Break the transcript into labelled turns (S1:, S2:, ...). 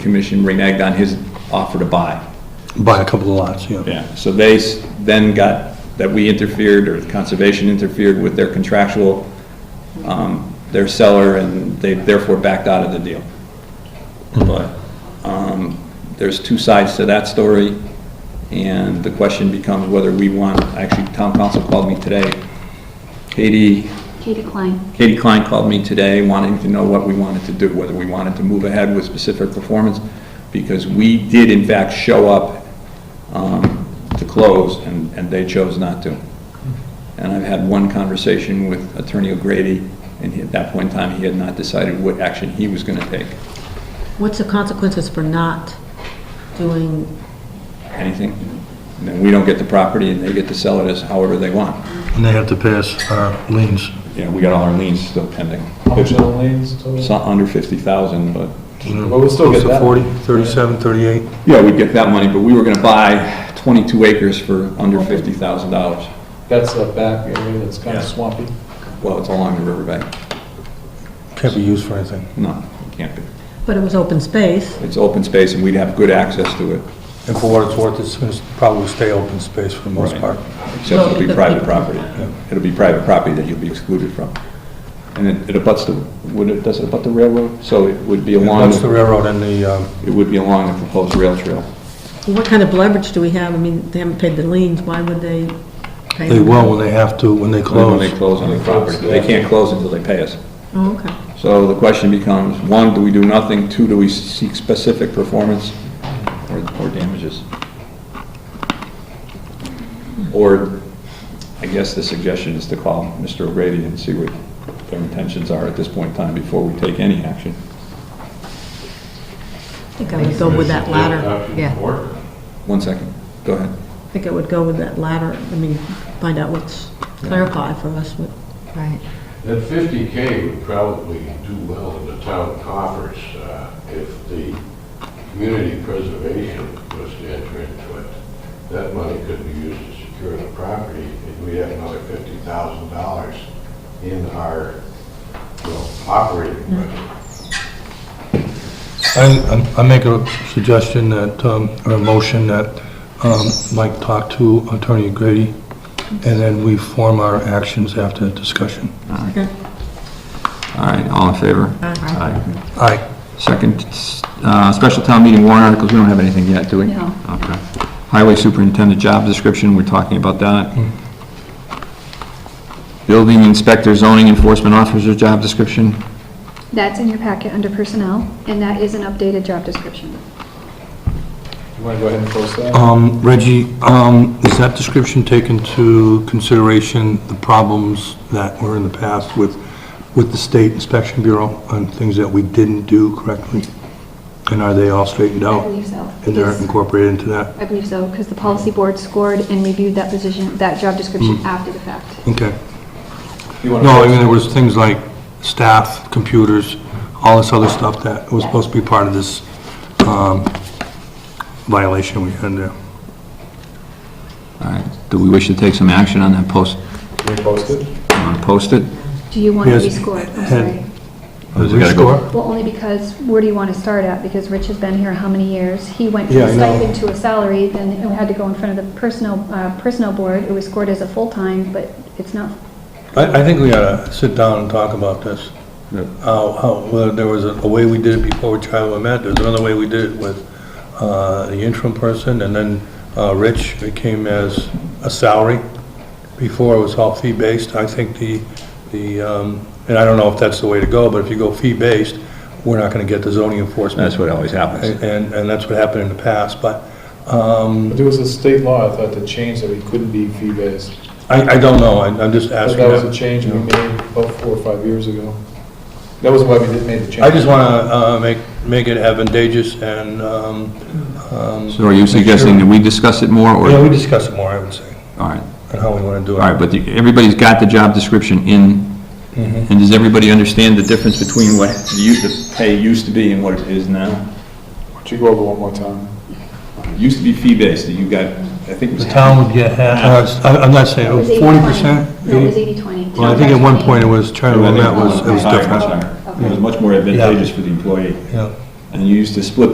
S1: commission reneged on his offer to buy.
S2: Buy a couple of lots, yeah.
S1: Yeah, so they s- then got, that we interfered, or conservation interfered with their contractual, um, their seller, and they therefore backed out of the deal. But, um, there's two sides to that story, and the question becomes whether we want, actually, town council called me today. Katie,
S3: Katie Klein.
S1: Katie Klein called me today wanting to know what we wanted to do, whether we wanted to move ahead with specific performance, because we did in fact show up um, to close, and, and they chose not to. And I've had one conversation with Attorney O'Grady, and he- at that point in time, he had not decided what action he was going to take.
S4: What's the consequences for not doing,
S1: Anything? And then we don't get the property, and they get to sell it as however they want.
S2: And they have to pass our liens.
S1: You know, we got all our liens still pending.
S5: How much are the lanes total?
S1: It's not under 50,000, but
S5: But we'll still
S2: Close
S5: get
S2: to
S5: that.
S2: 40, 37, 38.
S1: Yeah, we'd get that money, but we were gonna buy 22 acres for under $50,000.
S5: That's a back area that's kind of swampy.
S1: Well, it's along the riverbank.
S2: Can't be used for anything.
S1: No, it can't be.
S4: but it was open space,
S1: It's open space and we'd have good access to it,
S2: And for what it's worth, it's going to probably stay open space for the most
S1: Right.
S2: part.
S1: except it'll be private property. It'll be private property that you'll be excluded from. And it it abuts the, would it, does it abut the railroad? So it would be along,
S2: Once the railroad and the, um,
S1: it would be along the proposed rail trail.
S4: what kind of leverage do we have? I mean, they haven't paid the liens, why would they pay?
S2: they
S4: them?
S2: will when they have to, when they
S1: When
S2: close.
S1: they close on the property. They can't close until they pay us.
S4: Oh, okay.
S1: So the question becomes, one, do we do nothing? Two, do we seek specific performance or or damages? Or, I guess the suggestion is to call Mr. O'Grady and see what their intentions are at this point in time before we take any action.
S4: I think I would go with that latter, yeah.
S1: One second, go ahead.
S4: I think I would go with that latter, I mean, find out what's, clarify for us what. Right.
S6: That fifty K would probably do well in the town coffers uh, if the community preservation was to enter into it. That money could be used to secure the property, and we have another fifty thousand dollars in our, you know, operating budget.
S2: I, I- I make a suggestion that, um, or a motion that, um, Mike talk to Attorney Grady, and then we form our actions after that discussion.
S1: All right, all in favor?
S4: Aye.
S2: Aye.
S1: Second, uh, special town meeting warrant articles, we don't have anything yet, do we?
S3: No.
S1: Okay. Highway superintendent job description, we're talking about that.
S2: Hmm.
S1: Building inspector zoning enforcement officer job description.
S3: That's in your packet under personnel, and that is an updated job description.
S5: You want to go ahead and post that?
S2: Um, Reggie, um, is that description taken into consideration the problems that were in the past with, with the State Inspection Bureau on things that we didn't do correctly? And are they all straightened
S3: I
S2: out?
S3: believe so.
S2: And they're
S3: Yes.
S2: incorporated into that?
S3: I believe so, because the policy board scored and reviewed that position, that job description
S2: Hmm.
S3: after the fact.
S2: Okay.
S5: You wanna
S2: No, I
S5: post
S2: mean,
S5: it?
S2: there was things like staff, computers, all this other stuff that was supposed to be part of this um, violation we had there.
S1: All right, do we wish to take some action on that post,
S5: Can we post it?
S1: on post it?
S3: Do you want to
S2: Yes.
S3: rescore? I'm
S2: And-
S3: sorry.
S1: We gotta go.
S2: Restore?
S3: Well, only because, where do you want to start at? Because Rich has been here how many years? He went from
S2: Yeah,
S3: a
S2: I know.
S3: stipend to a salary, then it had to go in front of the personnel, uh, personnel board. It was scored as a full-time, but it's not,
S2: I, I think we ought to sit down and talk about this.
S1: Yeah.
S2: How, how, whether there was a a way we did it before with Charlie met, there's another way we did it with uh, the interim person, and then uh, Rich, it came as a salary. Before, it was all fee-based. I think the, the, um, and I don't know if that's the way to go, but if you go fee-based, we're not going to get the zoning enforcement.
S1: That's what always happens.
S2: And, and that's what happened in the past, but um,
S5: But there was a state law, I thought, that changed that we couldn't be fee-based.
S2: I, I don't know, I- I'm just
S5: But
S2: asking.
S5: That was a change we made about four or five years ago. That was why we did make the change.
S2: I just want to make, make it advantageous and, um, um...
S1: So are you
S2: make sure-
S1: suggesting that we discuss it more, or?
S2: Yeah,
S1: All
S2: we discuss it more, I would say,
S1: right,
S2: and how we want to do
S1: all
S2: it.
S1: right, but the- everybody's got the job description in,
S2: Mhm.
S1: and does everybody understand the difference between what the u- the pay used to be and what it is now?
S5: Why don't you go over one more time?
S1: It used to be fee-based, you got, I think it was.
S2: The town would get half, uh, I- I'm not saying, oh,
S3: that was 80/20.
S2: forty percent?
S3: No, it was 80/20.
S2: Well, I think at one point it was, Charlie
S1: I think
S2: Lumet was, it was
S1: higher,
S2: different.
S1: much higher. It was much more advantageous for the employee.
S2: Yeah.
S1: And you used to split